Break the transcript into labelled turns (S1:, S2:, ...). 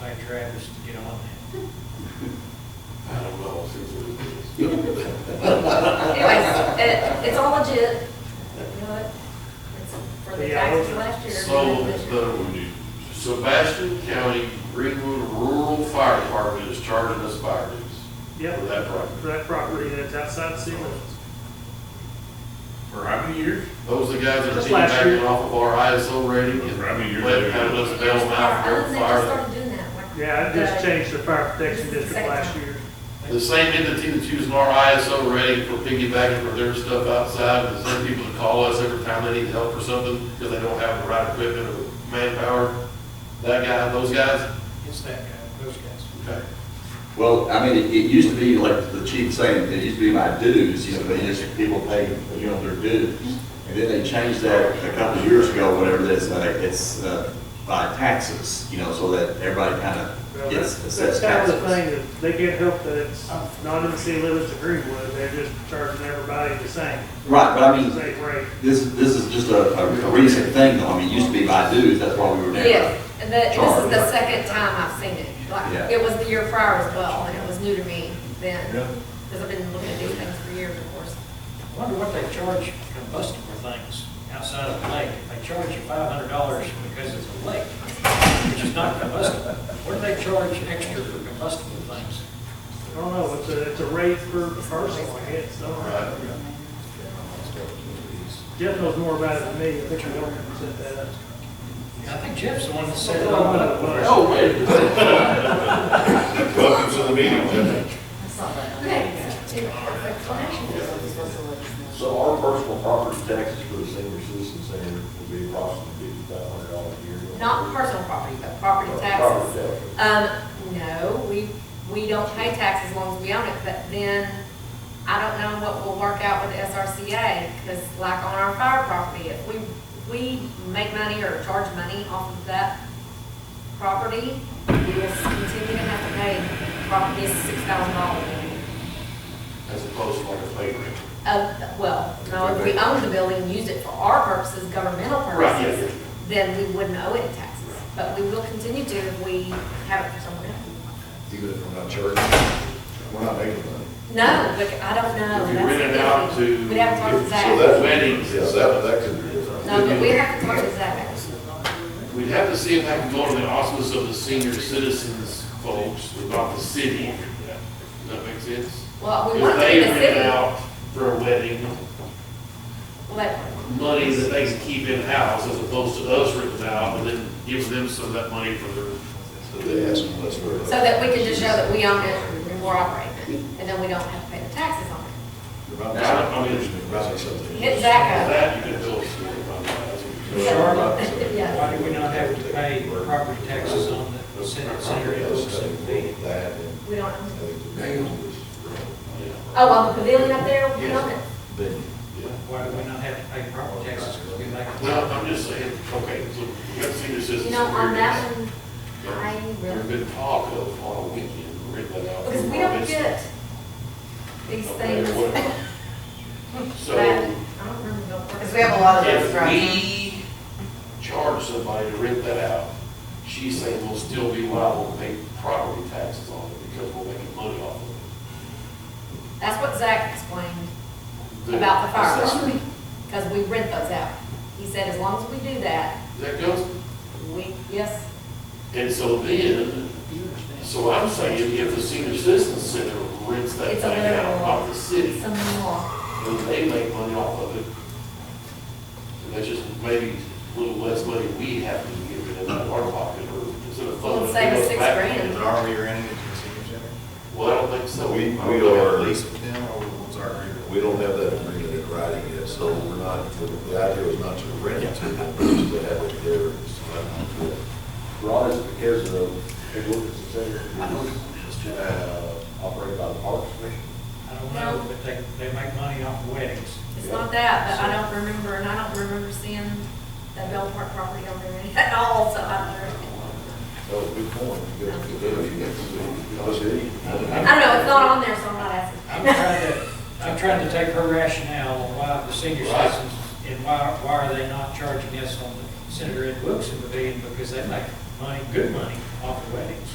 S1: by Travis to get on
S2: I don't know, since it
S3: Anyways, it, it's all legit, you know it. It's for the
S1: Yeah, I
S3: taxes
S1: was-
S3: last year.
S2: So, the Sebastian County Greenwood Rural Fire Department is charging us fire dues
S4: Yep,
S2: for that property.
S4: for that property that's outside the city limits.
S5: For how many years?
S2: Those are the guys that are
S4: Just
S2: team
S4: last
S2: backing
S4: year.
S2: off of our ISO rating and
S5: Right, I mean, you're-
S2: letting kind of us bail them out for
S3: Other
S2: their
S3: than they just
S2: fire.
S3: started doing that. like-
S4: Yeah, I just
S3: Uh,
S4: changed the fire protection
S3: This is the
S4: district last
S3: second
S4: year.
S2: The same entity that's using our ISO rating for piggybacking for their stuff outside, the same people that call us every time they need help or something because they don't have the right equipment or manpower. That guy, those guys,
S1: it. It's that guy, those guys.
S2: okay.
S6: Well, I mean, it, it used to be like the chief saying, it used to be my dues, you know, they just, people pay, you know, their dues. And then they changed that a couple of years ago, whatever that's, uh, it's, uh, by taxes, you know, so that everybody kind
S4: Well,
S6: of
S4: that's,
S6: gets
S4: that's
S6: assessed
S4: kind of the
S6: taxes.
S4: thing, that they can't help that it's not in the city limits of Greenwood, they're just charging everybody the same,
S6: Right, but I
S4: the
S6: mean,
S4: same rate.
S6: this, this is just a, a recent thing, though, I mean, it used to be by dues, that's why we were never.
S3: Yes, and the, this is the
S6: Charged.
S3: second time I've seen it.
S6: Yeah.
S3: Like, it was the year prior as well, and it was new to me then.
S5: Yeah.
S3: Because I've been looking at these things for years, of course.
S1: I Wonder what they charge combustible things outside of the lake. They charge you five hundred dollars because it's a lake, which is not combustible. What do they charge extra for combustible things?
S4: I don't know, it's a, it's a rate per person, I guess, I
S2: All
S4: don't
S2: right.
S4: know. Jeff knows more about it than me, I think Morgan set that up.
S1: I think Jeff's the one that said it all up.
S4: Oh,
S5: Welcome to the meeting, Jeff.
S7: So our personal property taxes for the senior citizen center will be approximately fifty-five hundred dollars a year.
S3: Not personal property, but property
S7: Property
S3: taxes.
S7: tax.
S3: Um, no, we, we don't pay tax as long as we own it, but then I don't know what will work out with the SRCA, because like on our fire property, if we, we make money or charge money off of that property, we will continue to have to pay property six thousand dollars.
S2: As opposed to like a pay rate.
S3: Uh, well, no, if we own the building and use it for our purposes, governmental
S2: Right, yeah,
S3: purposes, then we wouldn't owe any taxes. But we will continue to if we have it for someone else.
S7: Even if we're not charging, we're not making money.
S3: No, but I don't know.
S2: If you
S3: That's
S2: rent it
S3: the
S2: out
S3: thing.
S2: to-
S3: We'd have to talk to
S7: So
S3: Zach.
S7: that
S2: Weddings.
S7: Yeah, that, that could be different.
S3: No, but we have to talk to Zach.
S2: We'd have to see if I can go to the office of the senior citizens folks, but not the city. Does that make sense?
S3: Well, we
S2: If
S3: want to be
S2: they
S3: in the
S2: rent
S3: city.
S2: out for a wedding,
S3: Well, that-
S2: money that they can keep in-house as opposed to us renting out and then give them some of that money for their.
S7: So they ask them, that's where.
S3: So that we can just show that we own it and we're operating it, and then we don't have to pay the taxes on it.
S2: I mean,
S3: Hit Zach up.
S2: that you can build a store upon that.
S3: Charlotte, yeah.
S1: Why do we not have to pay property taxes on the Senate Center?
S7: That
S3: We don't own
S7: and.
S3: it.
S2: Yeah.
S3: Oh, on the pavilion up there, we own it.
S1: Why do we not have to pay property taxes? Because we make.
S2: Well, I'm just saying, okay, so you got senior citizens.
S3: You know, on that one, I
S2: There's
S3: really,
S2: been talk of on a weekend, rent that out.
S3: because we don't get these things.
S2: Okay,
S3: that-
S2: So.
S3: I don't remember. the-
S8: Because we have a lot of those,
S2: If
S8: right?
S2: we charge somebody to rent that out, she's saying we'll still be liable to pay property taxes on it because we're making money off of
S3: That's what Zach explained
S2: it.
S3: about the fire
S2: Is
S3: department, because we rent those out. He said as long as we do that,
S2: That goes,
S3: we, yes,
S2: and so then, so I'm saying if the senior citizen center rents that
S3: It's a
S2: thing out
S3: little-
S2: off the city,
S3: some law.
S2: then they make money off of it. And that's just maybe a little less money we have to give it in our pocket or instead of
S3: Well,
S2: funding.
S3: it's
S2: it
S3: like a
S2: goes
S3: six
S2: back.
S3: grand.
S9: Are we renting it to the senior center?
S2: Well, I don't think so.
S7: We- we
S2: I don't think
S7: are-
S2: at least
S9: Lease with them or what's our agreement?
S7: We don't have that agreement in writing yet, so we're not, the- the idea was not to rent it to them, but to have it there. Ron, is because of, hey, what is the center, uh, operated by the Parks Commission?
S1: I don't know, but they, they make money off weddings.
S3: It's not that, but I don't remember, and I don't remember seeing that Bell Park property on there at all, so I don't know.
S7: So, good point. You got to do it. You got to do it. I see.
S3: I don't know, it's not on there, so I'm not
S1: I'm
S3: asking.
S1: trying to, I'm trying to take her rationale on why the senior
S2: Right.
S1: citizens, and why, why are they not charging us on the Senator Ed Wilson pavilion, because they make money, good money, off the weddings.